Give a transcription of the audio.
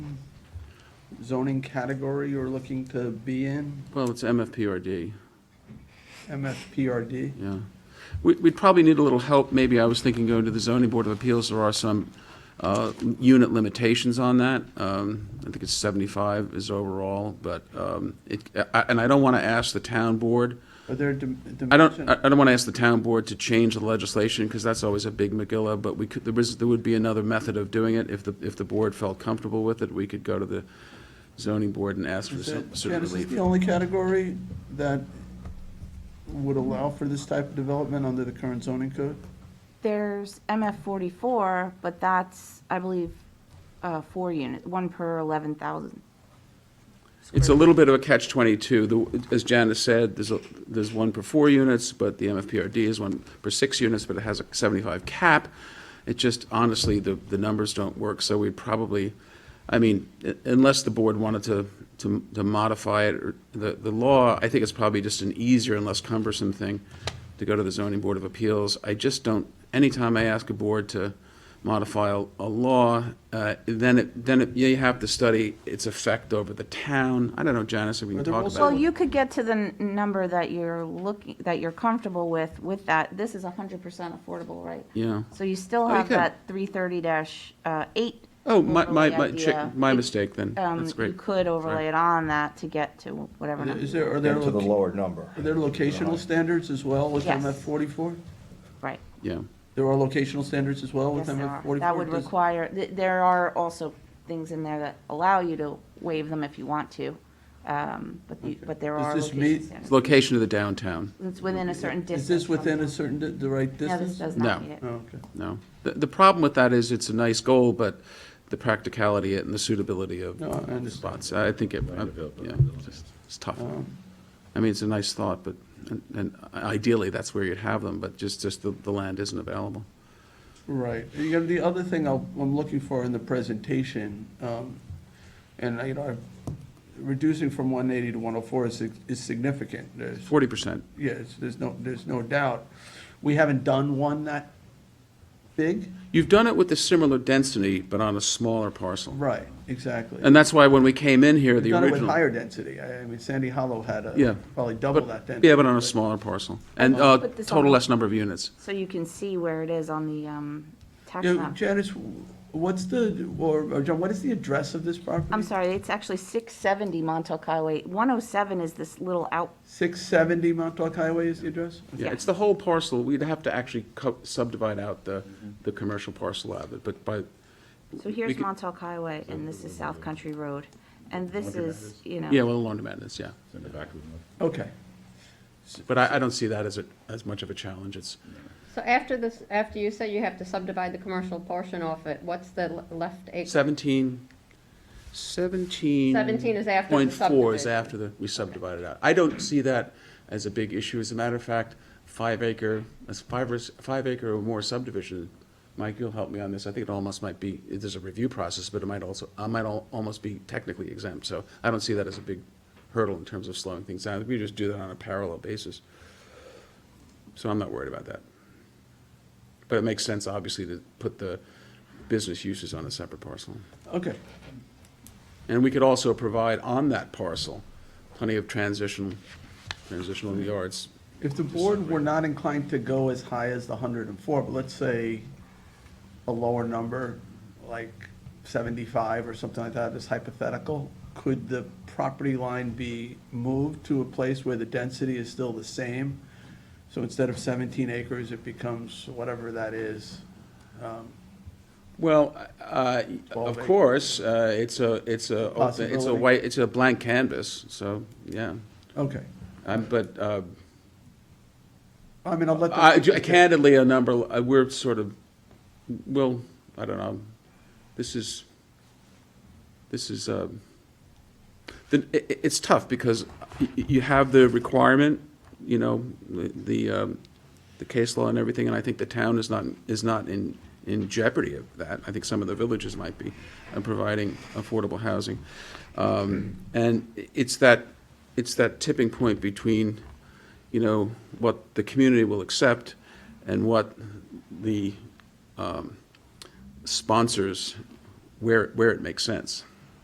zoning category you're looking to be in, Well, it's MFPRD, MFPRD? yeah. We- We'd probably need a little help, maybe, I was thinking going to the zoning board of appeals, there are some uh, unit limitations on that. Um, I think it's 75 is overall, but um, it, I- and I don't want to ask the town board, Are there dim- I don't, dimension? I I don't want to ask the town board to change the legislation, because that's always a big megilla, but we could, there was, there would be another method of doing it. If the, if the board felt comfortable with it, we could go to the zoning board and ask for Is some that- sort of Jan, is this relief. the only category that would allow for this type of development under the current zoning code? There's MF forty-four, but that's, I believe, uh, four unit, one per eleven thousand. It's a little bit of a catch-22. The- As Janice said, there's, a- there's one per four units, but the MFPRD is one per six units, but it has a 75 cap. It just, honestly, the, the numbers don't work, so we'd probably, I mean, u- unless the board wanted to, to to modify it, or the, the law, I think it's probably just an easier and less cumbersome thing to go to the zoning board of appeals. I just don't, anytime I ask a board to modify a, a law, uh, then it, then it, yeah, you have to study its effect over the town. I don't know, Janice, if we can Are there talk also- about Well, it. you could get to the n- number that you're looking, that you're comfortable with, with that. This is hundred percent affordable, right? Yeah. Oh, So you still you have could. that three thirty dash, uh, eight. Oh, my, my, overlay my, idea. chi- my mistake then. Um, That's You great. could overlay it on that to get to whatever number, Is there, are there, Then to the loca- lower number. are there locational standards as well with Yes. MF forty-four? right? Yeah. There are locational standards as well with Yes, there MF are. forty-four? That would require, th- there are also things in there that allow you to waive them if you want to, um, but you, but there Does are this location meet- standards. Location of the downtown, It's within a certain distance. Is this from within the- a certain, di- the right No, distance? this does No. not meet it. Oh, okay. no. The, the problem with that is it's a nice goal, but the practicality and the suitability of No, I understand. Um, spots, I think it, uh, yeah, it's- it's tough. I mean, it's a nice thought, but, and- and ideally, that's where you'd have them, but just, just the, the land isn't available. Right. You know, the other thing I'll- I'm looking for in the presentation, um, and, you know, reducing from 180 to 104 is sig- is significant. There's, Forty percent, yes, there's no, there's no doubt. We haven't done one that big? You've done it with a similar density, but on a smaller parcel. Right, exactly. And that's why when we came in here, We've the done it with original. higher density. I I mean, Sandy Hollow had Yeah. a, probably double that But- density. Yeah, but on a smaller parcel, and uh, Put this total on- less number of units. So you can see where it is on the, um, tax You know, map. Janice, what's the, or, or John, what is the address of this property? I'm sorry, it's actually six seventy Montauk Highway. One oh seven is this little out, 670 Montauk Highway is the address? Yeah, Yeah. it's the whole parcel, we'd have to actually co- subdivide out the, the commercial parcel out of it, but by, so We here's could- Montauk Highway, and this is South Country Road, and this is, you know. yeah, well, laundromat is, yeah. in the back of the room. Okay. But I, I don't see that as a, as much of a challenge, it's, So after this, after you say you have to subdivide the commercial portion off it, what's the le- left acre? Seventeen, seventeen. 17 is after the Point four is subdivision. after the, we subdivided out. I don't see that as a big issue. As a matter of fact, five acre, as five or, s- five acre or more subdivision, Mike, you'll help me on this. I think it almost might be, it- there's a review process, but it might also, I might al- almost be technically exempt. So I don't see that as a big hurdle in terms of slowing things down. We just do that on a parallel basis. So I'm not worried about that. But it makes sense, obviously, to put the business uses on a separate parcel. Okay. And we could also provide on that parcel plenty of transitional, transitional yards. If the board were not inclined to go as high as the hundred and four, but let's say a lower number, like seventy-five or something like that, is hypothetical, could the property line be moved to a place where the density is still the same? So instead of seventeen acres, it becomes whatever that is. Well, uh, Twelve of acres. course, uh, it's a, it's a, open- it's a Possibility. white, it's a blank canvas, so, yeah. Okay. Um, But uh, I mean, I'll let. I- them- candidly, a number, uh, we're sort of, well, I don't know, this is, this is, uh, the- i- i- it's tough because y- y- you have the requirement, you know, the- the, um, the case law and everything, and I think the town is not, is not in, in jeopardy of that. I think some of the villages might be, uh, providing affordable housing. Um, And i- it's that, it's that tipping point between, you know, what the community will accept and what the um, sponsors, where, where it makes sense.